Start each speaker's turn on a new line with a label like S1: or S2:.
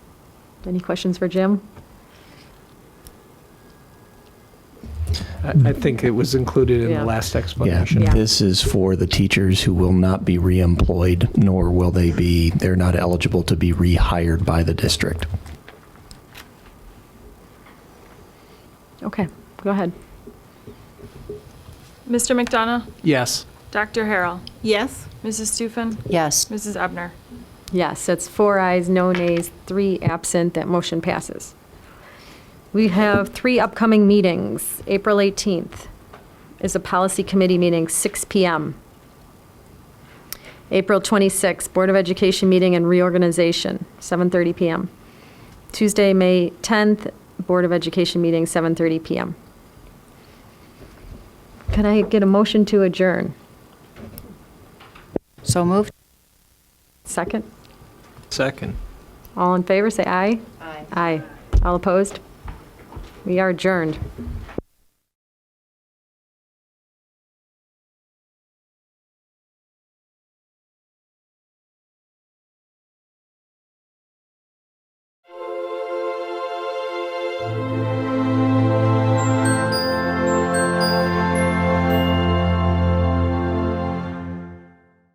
S1: Any questions for Jim?
S2: I I think it was included in
S1: Yeah.
S2: the last
S3: Yeah,
S2: explanation.
S1: Yeah.
S3: this is for the teachers who will not be reemployed, nor will they be, they're not eligible to be rehired by the district.
S1: Okay, go ahead.
S4: Mr. McDonough?
S2: Yes.
S4: Dr. Harrell?
S5: Yes.
S4: Mrs. Stufen?
S6: Yes.
S4: Mrs. Ebner?
S1: Yes, that's four ayes, no nays, three absent, that motion passes. We have three upcoming meetings. April 18th is a policy committee meeting, 6 PM. April 26th, Board of Education meeting and reorganization, 7:30 PM. Tuesday, May 10th, Board of Education meeting, 7:30 PM. Can I get a motion to adjourn?
S6: So moved?
S1: Second?
S2: Second.
S1: All in favor, say aye.
S6: Aye.
S1: Aye. All opposed? We are adjourned.